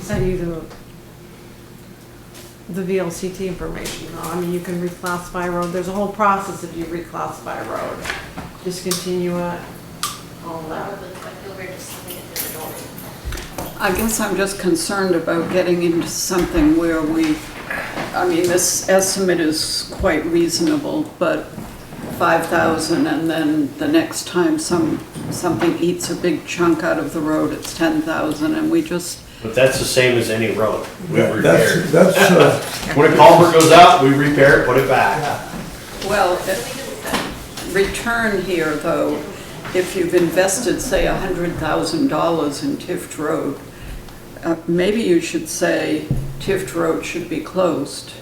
sent you the, the VLCT information, though. I mean, you can reclassify a road, there's a whole process if you reclassify a road. Discontinue it, all that. Probably, but you'll be just leaving it through the door. I guess I'm just concerned about getting into something where we, I mean, this estimate is quite reasonable, but 5,000 and then the next time some, something eats a big chunk out of the road, it's 10,000 and we just, But that's the same as any road. We Yeah, repair That's, it. that's, uh, When a culvert goes out, we repair it, put it back. well, if- return here though, if you've invested, say, $100,000 in Tift Road, uh, maybe you should say Tift Road should be closed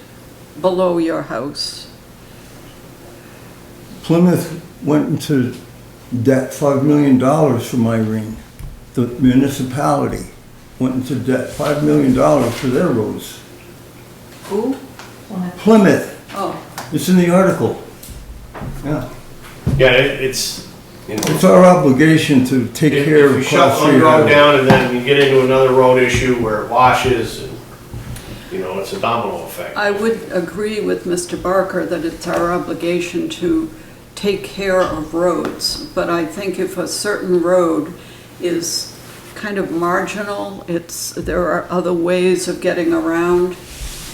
below your house. Plymouth went into debt five million dollars for my ring. The municipality went into debt five million dollars for their roads. Who? Plymouth, Oh. it's in the article. Yeah, Yeah, it- it's, you know, it's our obligation to take if care if of. you class shut one three road highways. down and then you get into another road issue where it washes and, you know, it's a domino effect. I would agree with Mr. Barker that it's our obligation to take care of roads, but I think if a certain road is kind of marginal, it's, there are other ways of getting around,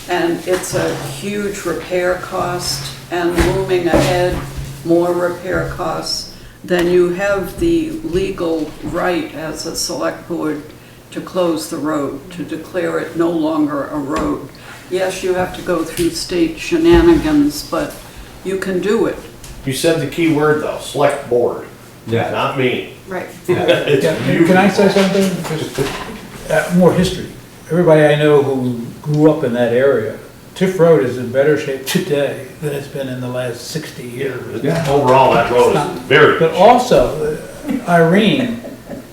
and it's a huge repair cost, and looming ahead, more repair costs, then you have the legal right as a select board to close the road, to declare it no longer a road. Yes, you have to go through state shenanigans, but you can do it. You said the key word though, select board. Yeah. Not me. Right. It's Can you. can I say something? Just, uh, More history. Everybody I know who grew up in that area, Tiff Road is in better shape today than it's been in the last 60 years. Yeah. Overall, that road is very. But also, uh, Irene,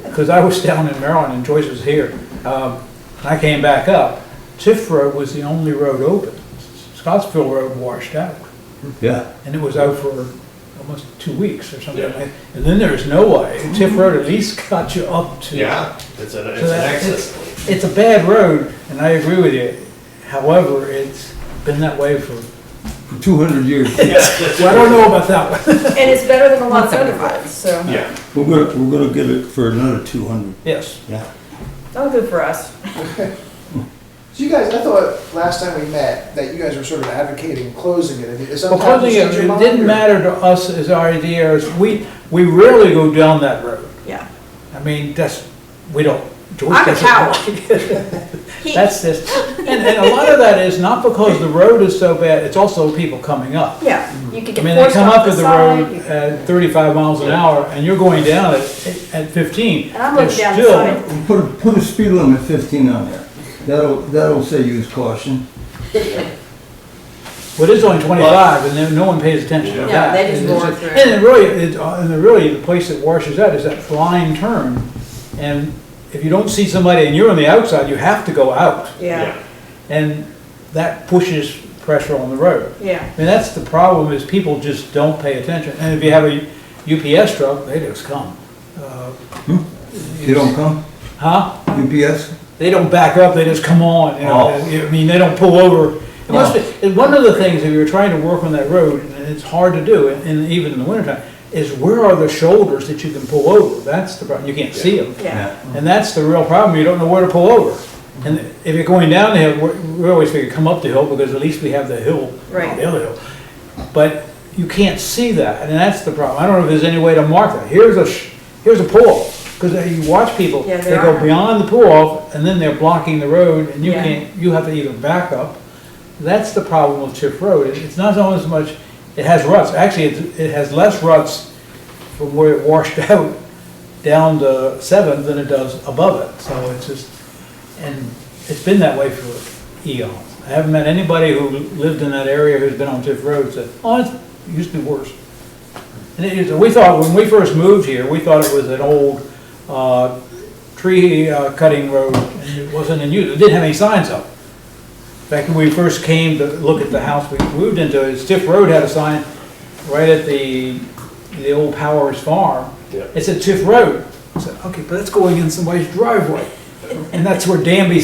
because I was down in Maryland and Joyce was here, um, and I came back up, Tiff Road was the only road open. Scottsville Road washed out, Yeah, and it was out for almost two weeks or something. like that. And then there was no way. Tiff Road at least got you up to. Yeah, it's an, it's So an that- access. point. it's, it's a bad road, and I agree with you. However, it's been that way for, for two hundred years. well, I don't know about that one. And it's better than a lot of other roads, so, Yeah, We're gonna, we're gonna get it for another two hundred, Yes. yeah. oh, good for us. So you guys, I thought last time we met that you guys were sort of advocating closing it. Is it Well, sometimes closing it, change your it mind, didn't or- matter to us as our ideas. We, we rarely go down that road. Yeah. I mean, that's, we don't. George I'm a doesn't- He- That's this, and, and a lot of that is not because the road is so bad, it's also people coming up. Yeah, you could I get mean, they forced come up off the at the side. road you- at thirty-five miles an hour, and you're going down at, at fifteen. And I'm looking down the still- side. Put, a- put a speed limit fifteen on there. That'll, that'll say use caution. Well, it is only twenty-five, and then no one pays attention to Yeah, that. they just roar And it's a- through. And it really, it, uh, and it really, the place that washes out is that flying turn, and if you don't see somebody and you're on the outside, you have to go out, Yeah, yeah. and that pushes pressure on the road. yeah. I mean, that's the problem, is people just don't pay attention, and if you have a UPS truck, they just come. Uh, They don't come, Huh? UPS? they don't back up, they just come on, you know, I mean, they don't pull over. It must be, and one of the things, if you're trying to work on that road, and it's hard to do, and- and even in the wintertime, is where are the shoulders that you can pull over? That's the problem, you can't see them. Yeah. And that's the real problem, you don't know where to pull over. And if you're going down the hill, we- we always figure, come up the hill, because at least we have the hill. Right. The other hill. But you can't see that, and that's the problem. I don't know if there's any way to mark that. Here's a, sh- here's a pull, because you watch people, Yeah, they there go are. beyond the pull-off, and then they're blocking the road, and you Yeah. can't, you have to either back up. That's the problem with Tiff Road. It- It's not so as much, it has ruts. Actually, it, it has less ruts from where it washed out down to Seventh than it does above it. So it's just, and it's been that way for eons. I haven't met anybody who lived in that area who's been on Tiff Road said, oh, it's- it used to be worse. And it is, we thought, when we first moved here, we thought it was an old, uh, tree uh, cutting road, and it wasn't in use, it didn't have any signs up. In fact, when we first came to look at the house we moved into, it, Stiff Road had a sign right at the, the old Powers Farm. Yeah. It said Tiff Road. I said, okay, but that's going in somebody's driveway. And that's where Danby